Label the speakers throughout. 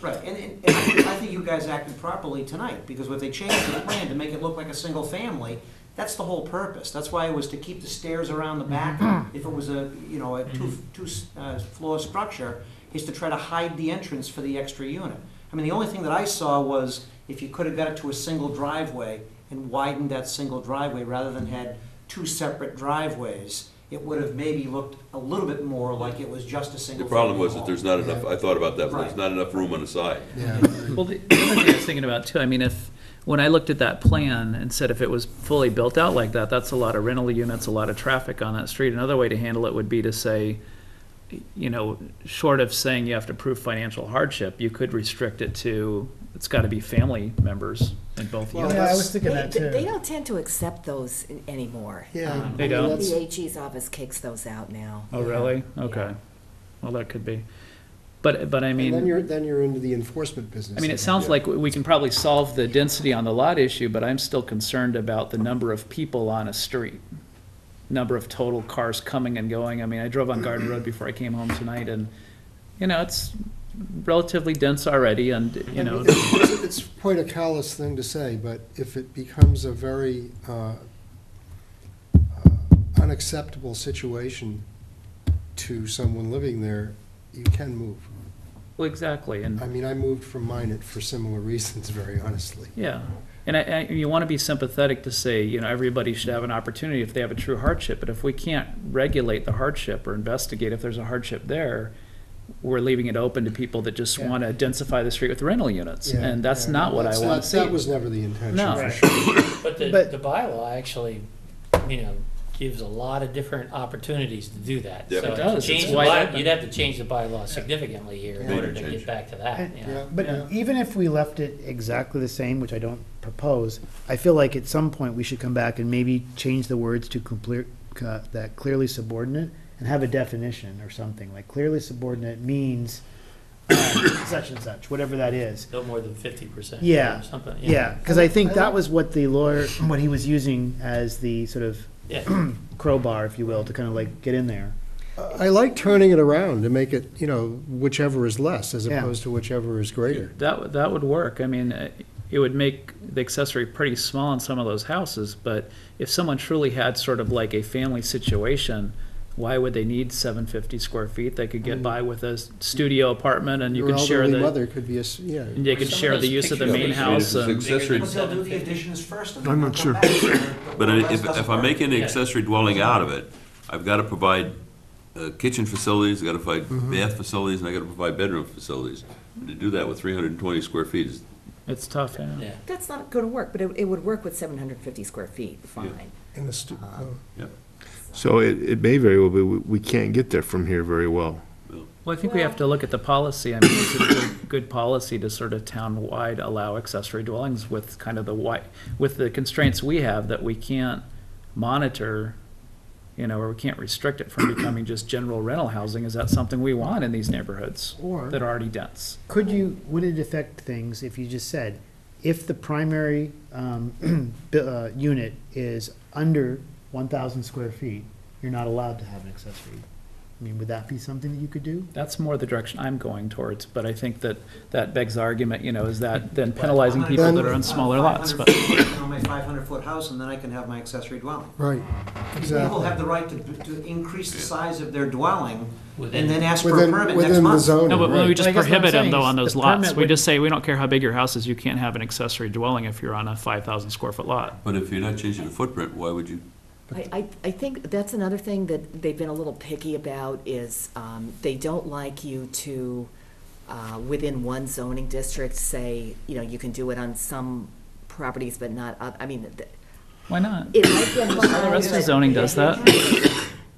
Speaker 1: Right, and, and, and I think you guys acted properly tonight, because if they changed the plan to make it look like a single family, that's the whole purpose. That's why it was to keep the stairs around the back. If it was a, you know, a two, two, uh, floor structure, is to try to hide the entrance for the extra unit. I mean, the only thing that I saw was if you could have got it to a single driveway and widened that single driveway rather than had two separate driveways, it would have maybe looked a little bit more like it was just a
Speaker 2: The
Speaker 1: single.
Speaker 2: problem
Speaker 1: family
Speaker 2: was that
Speaker 1: home.
Speaker 2: there's not enough, I thought about that, but
Speaker 1: Right.
Speaker 2: there's not enough room on the side.
Speaker 3: Yeah.
Speaker 4: Well, the the other thing I was thinking about too, I mean, if, when I looked at that plan and said if it was fully built out like that, that's a lot of rental units, a lot of traffic on that street. Another way to handle it would be to say, you know, short of saying you have to prove financial hardship, you could restrict it to, it's gotta be family members in both
Speaker 3: Well,
Speaker 4: units.
Speaker 3: Yeah, I was thinking
Speaker 5: They-
Speaker 3: that too.
Speaker 5: They don't tend to accept those an- anymore.
Speaker 3: Yeah.
Speaker 5: Um,
Speaker 4: They
Speaker 5: I mean,
Speaker 4: don't?
Speaker 5: The AG's office kicks those out now.
Speaker 4: Oh, really? Okay. Well, that could be. But, but I mean.
Speaker 6: And then you're, then you're into the enforcement business.
Speaker 4: I mean, it sounds like we can probably solve the density on the lot issue, but I'm still concerned about the number of people on a street. Number of total cars coming and going. I mean, I drove on Garden Road before I came home tonight and, you know, it's relatively dense already and, you know,
Speaker 6: It's it's quite a callous thing to say, but if it becomes a very uh, uh, unacceptable situation to someone living there, you can move.
Speaker 4: well, exactly, and.
Speaker 6: I mean, I moved from Minnet for similar reasons, very honestly.
Speaker 4: Yeah, and I, I, you want to be sympathetic to say, you know, everybody should have an opportunity if they have a true hardship, but if we can't regulate the hardship or investigate if there's a hardship there, we're leaving it open to people that just
Speaker 3: Yeah.
Speaker 4: want to densify the street with rental units,
Speaker 6: Yeah,
Speaker 4: and that's
Speaker 3: yeah.
Speaker 4: not what I
Speaker 6: That's
Speaker 4: want
Speaker 6: not-
Speaker 4: to see.
Speaker 6: That was never the intention,
Speaker 4: No.
Speaker 6: for
Speaker 4: Right.
Speaker 6: sure.
Speaker 7: But the,
Speaker 3: But-
Speaker 7: the bylaw actually, you know, gives a lot of different opportunities to do that.
Speaker 2: Yep.
Speaker 7: So
Speaker 2: It
Speaker 4: does.
Speaker 7: change
Speaker 4: It's
Speaker 7: the
Speaker 4: wide
Speaker 7: by-
Speaker 4: open.
Speaker 7: You'd have to change the bylaw significantly here in
Speaker 2: Major
Speaker 7: order to
Speaker 2: change.
Speaker 7: get back to that, you know.
Speaker 6: Yeah.
Speaker 3: But even if we left it exactly the same, which I don't propose, I feel like at some point we should come back and maybe change the words to complete, uh, that clearly subordinate and have a definition or something, like clearly subordinate means um, such and such, whatever that is.
Speaker 7: No more than fifty percent
Speaker 3: Yeah.
Speaker 7: or something.
Speaker 3: Yeah, because I think that was what the lawyer, what he was using as the sort of
Speaker 7: Yeah.
Speaker 3: crowbar, if you will, to kind of like get in there.
Speaker 6: I like turning it around to make it, you know, whichever is less as
Speaker 3: Yeah.
Speaker 6: opposed to whichever is greater.
Speaker 4: That, would- that would work. I mean, uh, it would make the accessory pretty small in some of those houses, but if someone truly had sort of like a family situation, why would they need seven fifty square feet? They could get by with a s- studio apartment and you
Speaker 6: Mm. Your
Speaker 4: could share
Speaker 6: elderly
Speaker 4: the,
Speaker 6: mother could be a, s- yeah.
Speaker 4: and they could
Speaker 7: Some of
Speaker 4: share the
Speaker 7: those
Speaker 4: use of the
Speaker 7: pictures
Speaker 4: main
Speaker 7: are
Speaker 4: house
Speaker 2: It's
Speaker 4: and.
Speaker 2: accessory-
Speaker 7: Bigger
Speaker 1: But they'll do the
Speaker 7: 750.
Speaker 1: additions first and then they'll come back. I'm not sure.
Speaker 2: But if, if I'm making an
Speaker 7: Yeah.
Speaker 2: accessory dwelling out of it, I've gotta provide uh, kitchen facilities, I've gotta provide bath facilities, and I gotta provide bedroom facilities. And To do that with three hundred and twenty square feet is,
Speaker 4: It's tough, yeah.
Speaker 7: Yeah.
Speaker 5: That's not going to work, but it, it would work with 750 square feet, fine.
Speaker 6: In the stu-
Speaker 1: Uh-huh.
Speaker 6: oh.
Speaker 2: yeah.
Speaker 8: So it, it may very well be, we we can't get there from here very well.
Speaker 4: Well, I think we have to look at the policy. I mean, it's a good, good policy to sort of town-wide allow accessory dwellings with kind of the wide, with the constraints we have that we can't monitor, you know, or we can't restrict it from becoming just general rental housing. Is that something we want in these neighborhoods
Speaker 3: Or.
Speaker 4: that are already dense?
Speaker 3: Could you, would it affect things if you just said, if the primary um, bu- uh, unit is under 1,000 square feet, you're not allowed to have an accessory? I mean, would that be something that you could do?
Speaker 4: That's more the direction I'm going towards, but I think that that begs the argument, you know, is that then penalizing people that are on smaller lots, but.
Speaker 1: 500 foot, you know, my five hundred foot house, and then I can have my accessory dwelling.
Speaker 6: Right,
Speaker 1: People
Speaker 6: exactly.
Speaker 1: have the right to, to increase the size of their dwelling, and then ask for a
Speaker 6: Within,
Speaker 1: permit next
Speaker 6: within the
Speaker 1: month.
Speaker 6: zone.
Speaker 4: No, but
Speaker 6: right.
Speaker 4: when we just
Speaker 3: But I guess what I'm
Speaker 4: prohibit them
Speaker 3: saying
Speaker 4: though
Speaker 3: is
Speaker 4: on those
Speaker 3: the
Speaker 4: lots,
Speaker 3: permit
Speaker 4: we
Speaker 3: would-
Speaker 4: just say, we don't care how big your house is, you can't have an accessory dwelling if you're on a five thousand square foot lot.
Speaker 2: But if you're not changing the footprint, why would you?
Speaker 5: I, I, I think that's another thing that they've been a little picky about is, um, they don't like you to, uh, within one zoning district, say, you know, you can do it on some properties, but not, oth- I mean, th-
Speaker 4: Why not?
Speaker 5: it might be.
Speaker 4: The rest of zoning does that.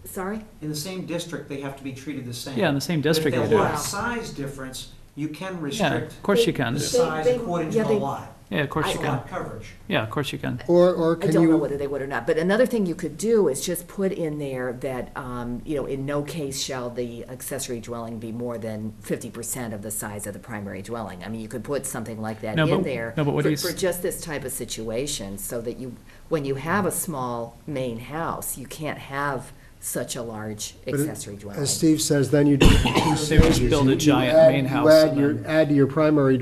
Speaker 5: Sorry?
Speaker 1: In the same district, they have to be treated the same.
Speaker 4: Yeah, in the same
Speaker 1: But
Speaker 4: district
Speaker 1: If
Speaker 4: they
Speaker 1: there's
Speaker 4: do.
Speaker 1: lot size difference, you can
Speaker 4: Yeah, of
Speaker 1: restrict
Speaker 4: course you can.
Speaker 1: the
Speaker 5: They-
Speaker 1: size
Speaker 5: they-
Speaker 1: according to
Speaker 5: yeah,
Speaker 1: the
Speaker 5: they-
Speaker 1: lot.
Speaker 4: Yeah, of course you
Speaker 1: It's
Speaker 4: can.
Speaker 1: lot coverage.
Speaker 4: Yeah, of course you can.
Speaker 6: Or, or
Speaker 5: I
Speaker 6: can
Speaker 5: don't know
Speaker 6: you,
Speaker 5: whether they would or not, but another thing you could do is just put in there that, um, you know, in no case shall the accessory dwelling be more than fifty percent of the size of the primary dwelling. I mean, you could put something like that
Speaker 4: No,
Speaker 5: in
Speaker 4: but-
Speaker 5: there.
Speaker 4: no, but what
Speaker 5: for-
Speaker 4: do you s-
Speaker 5: For just this type of situation, so that you, when you have a small main house, you can't have such a large accessory dwelling.
Speaker 6: As Steve says, then you do two
Speaker 4: They would
Speaker 6: stages.
Speaker 4: build
Speaker 6: You-
Speaker 4: a
Speaker 6: you
Speaker 4: giant
Speaker 6: add-
Speaker 4: main
Speaker 6: you
Speaker 4: house
Speaker 6: add
Speaker 4: and
Speaker 6: your-
Speaker 4: then-
Speaker 6: Add to your primary